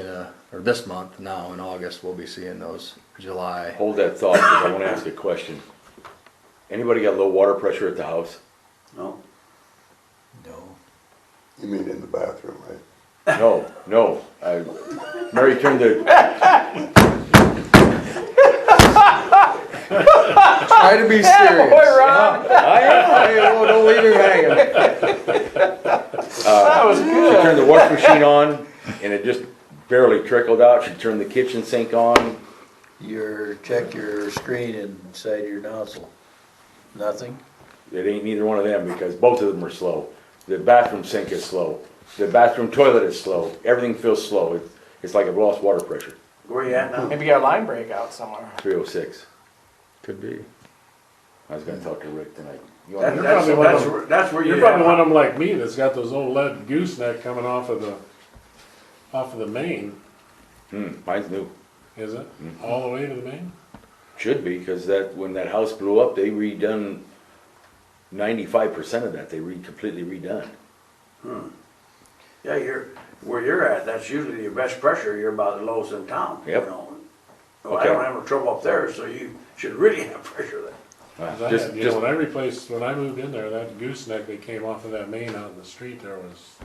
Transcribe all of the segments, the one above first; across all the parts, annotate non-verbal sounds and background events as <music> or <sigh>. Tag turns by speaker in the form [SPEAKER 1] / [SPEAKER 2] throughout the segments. [SPEAKER 1] uh, or this month now in August, we'll be seeing those July.
[SPEAKER 2] Hold that thought, because I wanna ask a question. Anybody got low water pressure at the house?
[SPEAKER 3] No,
[SPEAKER 1] No.
[SPEAKER 4] You mean in the bathroom, right?
[SPEAKER 2] No, no, I, Mary turned the,
[SPEAKER 1] Try to be serious.
[SPEAKER 2] I am,
[SPEAKER 1] Hey, whoa, don't leave him hanging.
[SPEAKER 3] that was
[SPEAKER 2] She
[SPEAKER 3] good.
[SPEAKER 2] turned the wash machine on and it just barely trickled out. She turned the kitchen sink on.
[SPEAKER 5] Your, check your screen inside your nozzle. Nothing?
[SPEAKER 2] It ain't neither one of them because both of them are slow. The bathroom sink is slow. The bathroom toilet is slow. Everything feels slow. It's, it's like I've lost water pressure.
[SPEAKER 3] Where you at now?
[SPEAKER 6] Maybe you got a line break out somewhere.
[SPEAKER 2] 306.
[SPEAKER 1] Could be.
[SPEAKER 2] I was gonna talk to Rick tonight. You
[SPEAKER 3] That-
[SPEAKER 2] wanna-
[SPEAKER 3] That's,
[SPEAKER 7] probably one of
[SPEAKER 3] that's,
[SPEAKER 7] them.
[SPEAKER 3] where- that's where you
[SPEAKER 7] You're probably one of them like me that's got those old lead gooseneck coming off of the, off of the main,
[SPEAKER 2] Hmm, mine's new.
[SPEAKER 7] is it?
[SPEAKER 2] Mm-hmm.
[SPEAKER 7] All the way to the main?
[SPEAKER 2] Should be because that, when that house blew up, they redone 95% of that. They re, completely redone.
[SPEAKER 3] Yeah, you're, where you're at, that's usually your best pressure, you're about the lowest in town. you
[SPEAKER 2] Yep.
[SPEAKER 3] know. Well, I
[SPEAKER 2] Okay.
[SPEAKER 3] don't have no trouble up there, so you should really <laughs> have pressure there.
[SPEAKER 7] 'Cause I
[SPEAKER 2] Just,
[SPEAKER 7] had- you know,
[SPEAKER 2] just,
[SPEAKER 7] when I replaced, when I moved in there, that gooseneck that came off of that main out in the street there was,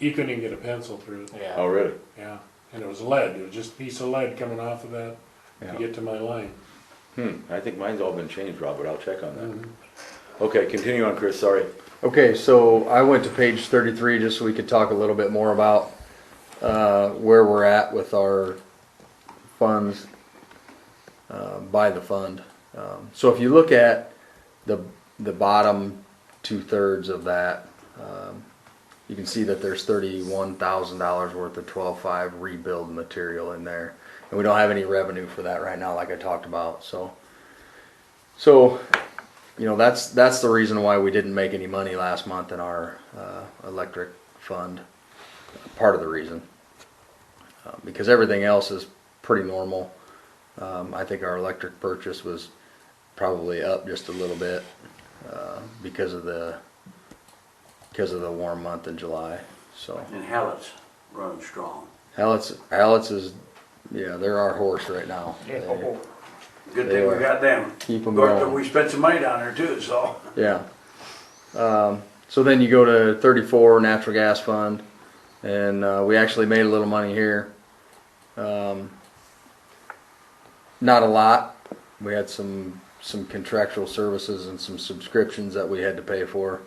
[SPEAKER 7] you couldn't even get a pencil through it,
[SPEAKER 6] Yeah.
[SPEAKER 2] oh, really?
[SPEAKER 7] yeah. And it was lead, it was just a piece of lead coming off of that to
[SPEAKER 1] Yeah.
[SPEAKER 7] get to my line.
[SPEAKER 2] Hmm, I think mine's all been changed, Robert. I'll check on that. Okay, continue on, Chris. Sorry.
[SPEAKER 1] Okay, so I went to page thirty-three just so we could talk a little bit more about, uh, where we're at with our funds, uh, by the fund. Um, so if you look at the, the bottom two-thirds of that, um, you can see that there's thirty-one thousand dollars worth of twelve-five rebuild material in there. And we don't have any revenue for that right now, like I talked about, so. So, you know, that's, that's the reason why we didn't make any money last month in our, uh, electric fund. Part of the reason. Uh, Because everything else is pretty normal. Um, I think our electric purchase was probably up just a little bit, uh, because of the, because of the warm month in July, so.
[SPEAKER 3] And Hallett's running strong,
[SPEAKER 1] Hallett's, Hallett's is, yeah, they're our horse right now.
[SPEAKER 6] Yeah.
[SPEAKER 1] They-
[SPEAKER 3] good
[SPEAKER 1] They
[SPEAKER 3] thing we
[SPEAKER 1] are.
[SPEAKER 3] got them.
[SPEAKER 1] Keep 'em
[SPEAKER 3] Of course,
[SPEAKER 1] going.
[SPEAKER 3] We spent some money down there too, so. <laughs>
[SPEAKER 1] Yeah. Um, so then you go to thirty-four natural gas fund, and uh, we actually made a little money here. Um, not a lot. We had some some contractual services and some subscriptions that we had to pay for,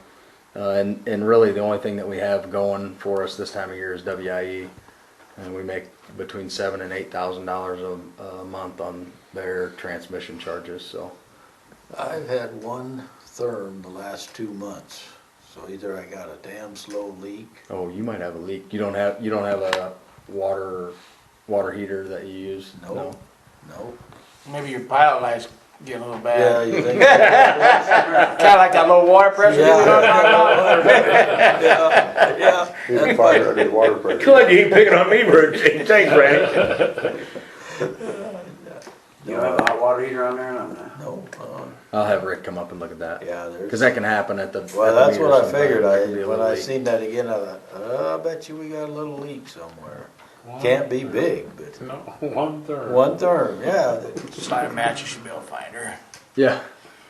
[SPEAKER 1] uh, and and really the only thing that we have going for us this time of year is WIE, and we make between seven and eight thousand dollars a a month on their transmission charges. So.
[SPEAKER 5] I've had one therm the last two months, so either I got a damn slow leak.
[SPEAKER 1] Oh, you might have a leak. You don't have you don't have a water water heater that you use.
[SPEAKER 5] No. Nope.
[SPEAKER 6] Maybe your pilot lights getting a little
[SPEAKER 5] <laughs> Yeah,
[SPEAKER 6] bad.
[SPEAKER 5] you <laughs> think? Yeah.
[SPEAKER 6] Kinda like that low water pressure. we don't talk about.
[SPEAKER 5] <laughs> Yeah.
[SPEAKER 4] Even fire under the water pressure.
[SPEAKER 2] Glad you ain't picking on me, Rick. Thanks, Randy.
[SPEAKER 3] You have a hot water heater on there and I'm not.
[SPEAKER 5] Nope, uh,
[SPEAKER 1] I'll have Rick come up and look at that.
[SPEAKER 5] yeah,
[SPEAKER 1] Because that
[SPEAKER 5] there's,
[SPEAKER 1] can happen at the.
[SPEAKER 5] well,
[SPEAKER 1] at the
[SPEAKER 5] that's
[SPEAKER 1] meter
[SPEAKER 5] what I
[SPEAKER 1] sometimes.
[SPEAKER 5] figured.
[SPEAKER 1] There
[SPEAKER 5] I,
[SPEAKER 1] can be a
[SPEAKER 5] when
[SPEAKER 1] little
[SPEAKER 5] I
[SPEAKER 1] leak.
[SPEAKER 5] seen that again, I thought, uh, I bet you we got a little leak somewhere.
[SPEAKER 7] One-
[SPEAKER 5] Can't be big, but
[SPEAKER 7] No, <laughs> one third.
[SPEAKER 5] one therm, yeah.
[SPEAKER 6] Just light a match, you should be able to find her.
[SPEAKER 1] Yeah.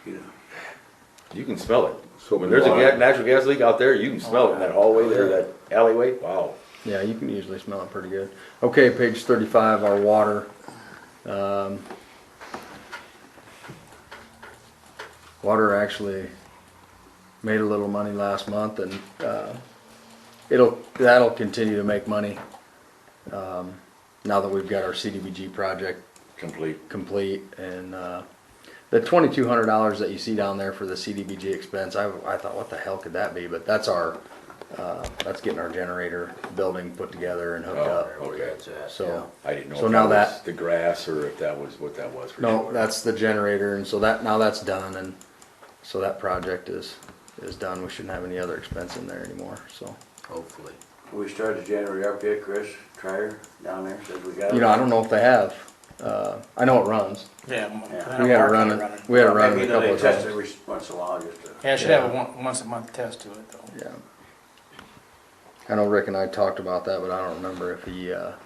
[SPEAKER 2] You can smell it. When there's a ga- natural gas leak out there, you can smell it in that hallway there, that alleyway. Wow.
[SPEAKER 1] Yeah, you can usually smell it pretty good. Okay, page thirty-five, our water. Um, Water actually made a little money last month and, uh, it'll, that'll continue to make money. um, Now that we've got our CDBG project
[SPEAKER 2] Complete.
[SPEAKER 1] complete and uh, the twenty-two hundred dollars that you see down there for the CDBG expense, I, I thought, what the hell could that be? But that's our, uh, that's getting our generator building put together and hooked
[SPEAKER 2] Oh,
[SPEAKER 1] up.
[SPEAKER 2] okay.
[SPEAKER 1] So,
[SPEAKER 2] I didn't know
[SPEAKER 1] So
[SPEAKER 2] if
[SPEAKER 1] now
[SPEAKER 2] that was
[SPEAKER 1] that-
[SPEAKER 2] the grass or if that was what that was for
[SPEAKER 1] no,
[SPEAKER 2] sure.
[SPEAKER 1] that's the generator and so that, now that's done and so that project is, is done. We shouldn't have any other expense in there anymore, so.
[SPEAKER 5] Hopefully.
[SPEAKER 3] We started to generate up yet, Chris, Trier, down there, says we got. it.
[SPEAKER 1] You know, I don't know if they have, uh, I know it runs.
[SPEAKER 6] Yeah.
[SPEAKER 3] Yeah.
[SPEAKER 1] We had it running, we had it running
[SPEAKER 3] Maybe
[SPEAKER 1] a couple
[SPEAKER 3] they
[SPEAKER 1] of
[SPEAKER 3] test
[SPEAKER 1] times.
[SPEAKER 3] it once in a while just to.
[SPEAKER 6] Yeah, I should have a one, once a month test to it though.
[SPEAKER 1] Yeah. I know Rick and I talked about that, but I don't remember if he, uh,